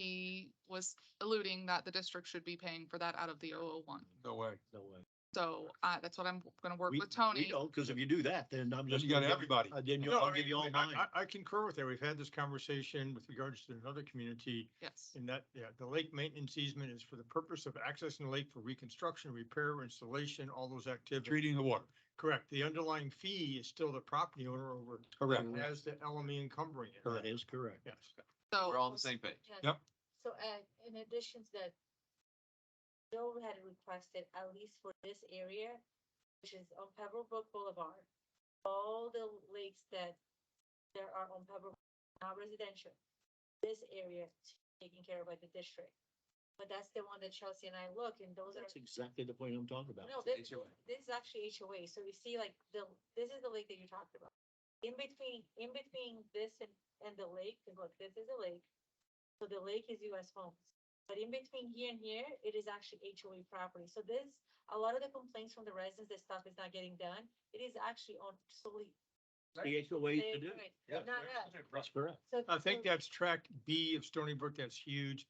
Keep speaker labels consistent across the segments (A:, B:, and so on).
A: he was alluding that the district should be paying for that out of the 001.
B: No way.
C: No way.
A: So, uh, that's what I'm gonna work
C: We-
A: with Tony.
C: we don't, Cause if you do that, then I'm
B: Then
C: just.
B: you got
C: gonna-
B: everybody.
C: uh, Then you,
D: No,
C: I'll
D: I
C: give
D: mean,
C: you all mine.
D: I, I I concur with that. We've had this conversation with regards to another community
A: Yes,
D: in that, yeah, the lake maintenance easement is for the purpose of accessing the lake for reconstruction, repair, installation, all those activities.
B: Treating the water.
D: Correct. The underlying fee is still the property owner over,
B: Correct.
D: as the LME encumbering it.
C: That is correct.
D: Yes.
A: so.
E: We're all on the same page.
F: Yeah.
B: Yep.
F: So, uh, in addition to that, Joe had requested, at least for this area, which is on Pebblebrook Boulevard, all the lakes that there are on Pebblebrook, not residential, this area is taken care of by the district. But that's the one that Chelsea and I look, and those are,
C: That's exactly the point I'm talking about.
F: no, this,
E: HOA.
F: this is actually HOA, so you see like the, this is the lake that you talked about. In between, in between this and, and the lake, 'cause look, this is a lake, so the lake is US homes. But in between here and here, it is actually HOA property, so this, a lot of the complaints from the residents, that stuff is not getting done, it is actually on solely.
C: The HOA
F: they-
C: to do.
F: right,
C: Yeah.
F: Not us.
C: That's correct.
F: So-
D: I think
F: so-
D: that's track B of Stony Brook. That's huge.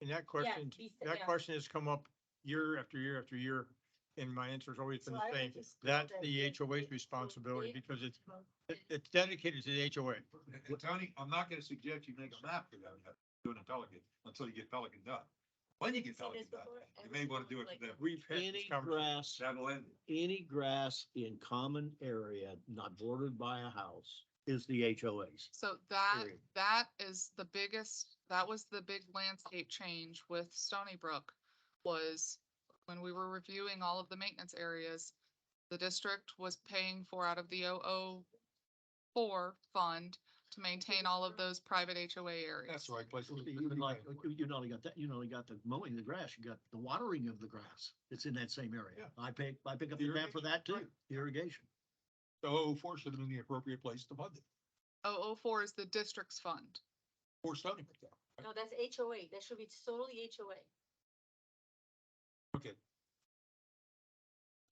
D: And that question,
F: he said
D: that
F: that.
D: question has come up year after year after year. And my answer has always been
F: So I
D: the
F: would
D: same.
F: just put
D: That's
F: that
D: the
F: it-
D: HOA's
F: it-
D: responsibility
F: it-
D: because it's, it- it's dedicated to the HOA.
B: And Tony, I'm not gonna suggest you make a map for them, yet, doing a Pelican, until you get Pelican done. When you get
F: So
B: Pelican
F: there's
B: done,
F: before and
B: you may wanna do it
F: like-
B: for them.
D: We've had this
C: Any
D: conversation.
C: grass,
B: That'll end. it.
C: any grass in common area not bordered by a house is the HOA's.
A: So that,
C: Period.
A: that is the biggest, that was the big landscape change with Stony Brook was when we were reviewing all of the maintenance areas, the district was paying for out of the 004 fund to maintain all of those private HOA areas.
B: That's the right, place. to
C: You-
B: be.
C: you would like- you- you not only got that, you not only got the mowing of the grass, you got the watering of the grass. It's in that same
B: Yeah.
C: area. I pick, I pick up the tab for
B: Irrigation,
C: that too,
B: right.
C: irrigation.
B: So four should have been the appropriate place to fund it,
A: Oh, oh, four is the district's fund.
B: for Stony Brook. though.
F: No, that's HOA, that should be solely HOA.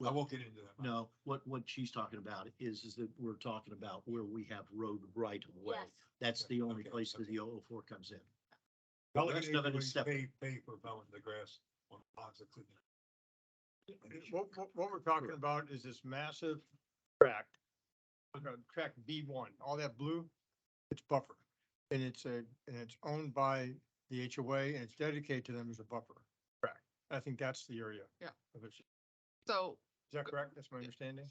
B: I won't get into that.
C: No, what, what she's talking about is, is that we're talking about where we have road right of way.
F: Yes,
C: That's the only
B: Okay,
C: place that
B: okay.
C: the 004 comes in.
B: Well,
C: The
B: that
C: rest of it is
B: is
C: separate.
B: Pay, pay for mowing the grass on the ponds that couldn't.
D: What, what, what we're talking about is this massive track. uh, Track B one, all that blue, it's buffer. And it's a, and it's owned by the HOA and it's dedicated to them as a buffer. Correct. I think that's the area.
A: Yeah.
D: of it. Is
A: So,
D: that correct? That's my understanding?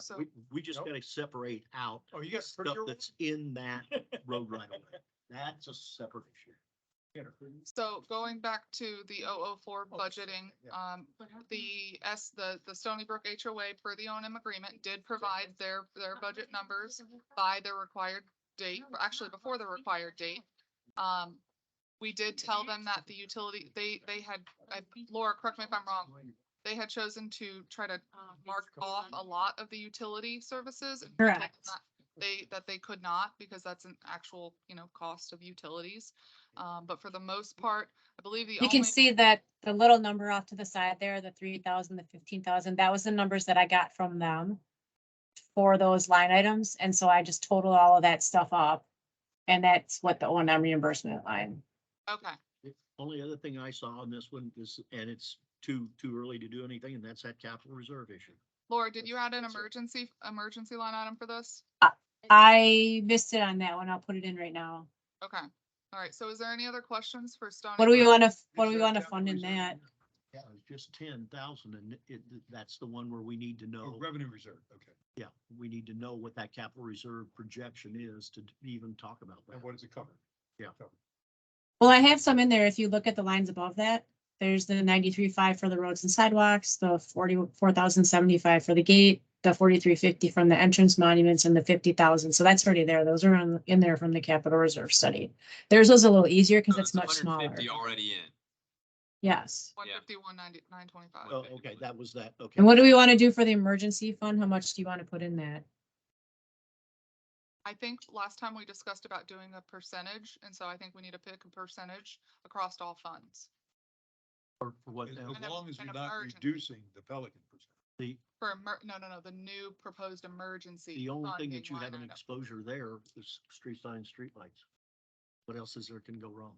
A: so,
C: We, we just
D: Nope.
C: gotta separate out
D: Oh, you got.
C: stuff that's in that road right of way. That's a separate issue.
A: so going back to the 004
D: Oh, that's right,
A: budgeting,
D: yeah.
A: um, the S, the, the Stony Brook HOA per the O and M agreement did provide their, their budget numbers by the required date, or actually before the required date. Um, we did tell them that the utility, they, they had, I- Laura, correct me if I'm wrong, they had chosen to try to
F: um,
A: mark
F: it's
A: off
F: on-
A: a lot of the utility services. and they could
F: Correct.
A: not- They, that they could not because that's an actual, you know, cost of utilities. Um, but for the most part, I believe the
G: You can
A: only-
G: see that the little number off to the side there, the three thousand, the fifteen thousand, that was the numbers that I got from them for those line items. And so I just totaled all of that stuff up. And that's what the O and M reimbursement line.
A: Okay,
C: The Only other thing I saw on this one is, and it's too, too early to do anything, and that's that capital reserve issue.
A: Laura, did you add an
C: That's it.
A: emergency, emergency line item for this?
G: I missed it on that one. I'll put it in right now.
A: Okay, all right, so is there any other questions for Stony?
G: What do we
A: Brook?
G: want to, what do we
C: Reserve,
G: want to
C: capital
G: fund in
C: reserve.
G: that?
C: Yeah, it's just ten thousand, and it, that's the one where we need to
B: Oh,
C: know,
B: Revenue reserve, okay.
C: yeah, we need to know what that capital reserve projection is to even talk about that.
B: And what does it cover?
C: Yeah.
G: Well, I have some in there. If you look at the lines above that, there's the ninety-three five for the roads and sidewalks, the forty-four thousand seventy-five for the gate, the forty-three fifty from the entrance monuments and the fifty thousand. So that's already there. Those are in, in there from the capital reserve study. Theirs was a little easier because
E: So
G: it's much smaller.
E: 150 Already in.
G: Yes.
A: One
E: Yeah.
A: fifty, one ninety, nine twenty-five.
C: Oh, okay, that was that, okay.
G: And what do we want to do for the emergency fund? How much do you want to put in that?
A: I think last time we discussed about doing a percentage, and so I think we need to pick a percentage across all funds
C: For for what,
B: As
C: now?
B: as
A: An-
B: long as
A: an
B: we're not
A: emergency.
B: reducing the Pelican percentage.
C: the,
A: for emer, no, no, no, the new proposed emergency.
C: the only thing
A: funding
C: that you
A: line
C: have an
A: item.
C: exposure there is street signs, streetlights. What else is there can go wrong?